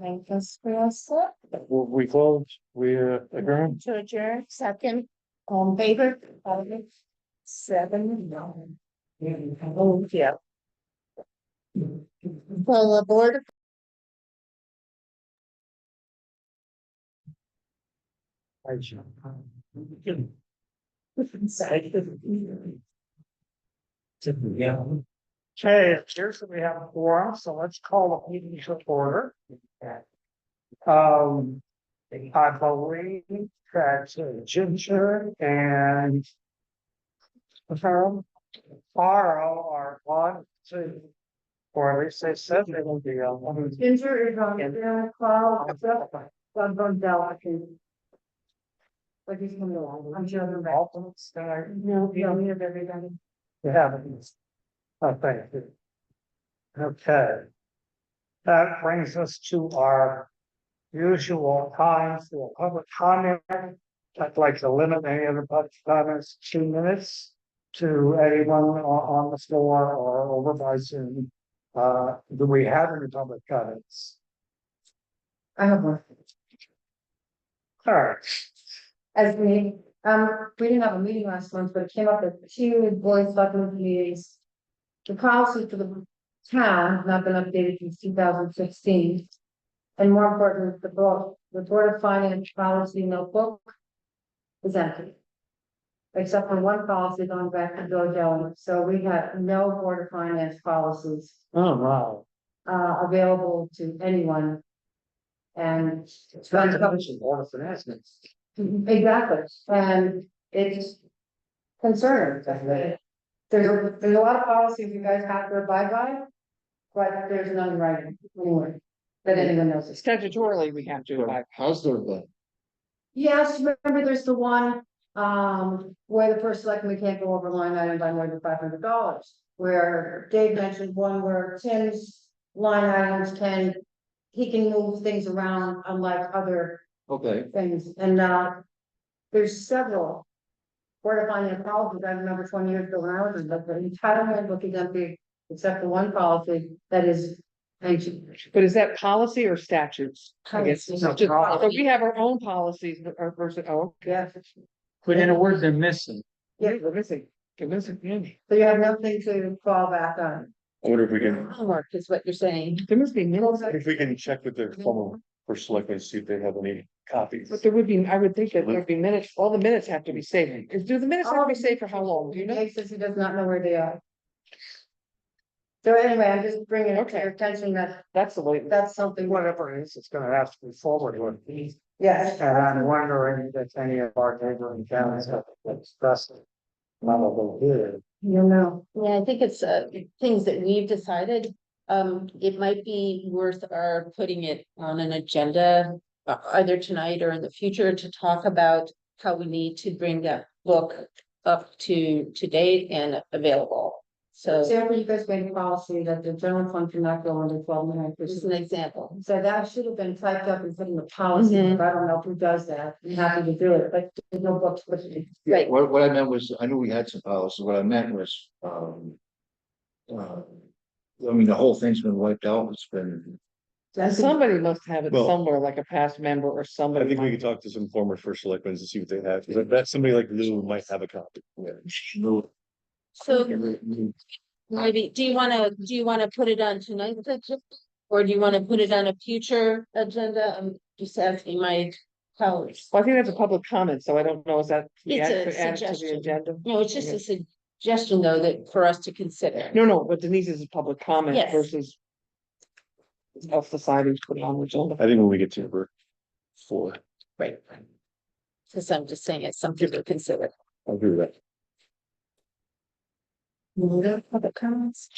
make us feel so. We close, we uh, adjourn. To adjourn, second, on paper, on seven, nine. Oh, yeah. Well, the board Okay, it appears that we have a forum, so let's call the meeting to order. Um, I believe that uh, Ginger and Farrell Farrell are on to, or at least they said they will be on. Ginger is on And- the cloud, except I'm on Delican. But he's coming along. I'm sure the All of us that are- No, we don't have everybody. You haven't. Oh, thank you. Okay. That brings us to our usual time for public comment. I'd like to limit any of the public comments to two minutes to anyone on, on the floor or over by Zoom. Uh, do we have any public comments? I have one. All right, As we, um, we didn't have a meeting last month, but it came up that two boys selectmen communities. The policy for the town has not been updated since two thousand sixteen. And more important, the board, the board of finance policy notebook. Is empty. Except for one policy going back to Bill Jones, so we have no board of finance policies oh, wow. uh available to anyone. And It's not a commission, board of finance. Exactly, and it's concerning, definitely. There's, a- there's a lot of policies you guys have to abide by, but there's none in writing anywhere that anyone knows. Statutorily, we have to, abide. How's their been? Yes, remember there's the one, um, where the first selectman can't go over line item by more than five hundred dollars. Where Dave mentioned one where Tim's line items can, he can move things around unlike other Okay, things, and, uh, there's several. Board of Finance policies, I remember twenty years ago when I was in, but the entitlement book is empty, except for one policy that is ancient. but is that policy or statutes? I guess it's Policy. just- So we have our own policies or versus, oh, Yeah, but in a word, they're missing. yeah, we're missing, we're missing Andy. so you have nothing to fall back on. I wonder if we can, Homework is what you're saying. There must be, minimum- if we can check with their formal first selectmen, see if they have any copies. but there would be, I would think that there'd be minutes, all the minutes have to be saved. Is- Do the minutes have to be saved for how long? Do you know? He says he does not know where they are. So anyway, I'm just bringing it to your Okay. attention that That's the way, that's something, Whatever it is, it's gonna have to be forwarded with these. yes, And I'm wondering if any of our neighboring towns have expressed level here. you know, Yeah, I think it's uh things that we've decided. Um, it might be worth our putting it on an agenda. uh, Either tonight or in the future to talk about how we need to bring that book up to to date and available. So example, you guys made a policy that the general fund cannot go under twelve million this percent. is an example. So that should have been typed up and put in the policy, Mhm. but I don't know who does that, I'm happy to do it, but there's no book to put it in. Right. What, what I meant was, I knew we had some policies, what I meant was, um. uh, I mean, the whole thing's been wiped out, it's been, That's- somebody must have it Well- somewhere, like a past member or I somebody. think we might- could talk to some former first selectmen to see what they have, because I bet somebody like Lou might have a copy. So maybe, do you wanna, do you wanna put it on tonight's agenda? Or do you wanna put it on a future agenda? I'm just asking my colleagues. Well, I think that's a public comment, so I don't know, is that? we It's a add- could add it to the suggestion. Agenda? No, it's just a suggestion though that for us to consider. No, no, but Denise is a public comment Yes. versus. Of society put on the agenda. I think when we get to number four, Right. Cause I'm just saying it's something to consider. I'll agree with that. Public comments?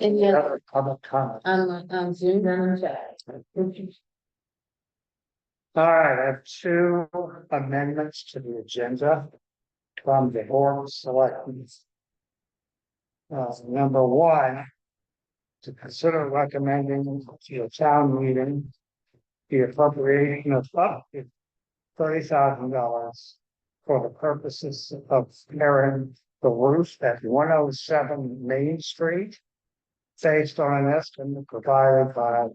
And then Other public comment. on on Zoom, none in chat. All right, I have two amendments to the agenda from the board of selectmen. Uh, number one, to consider recommending to a town meeting the appropriation of up to thirty thousand dollars for the purposes of repairing the roof at one oh seven Main Street based on an estimate provided by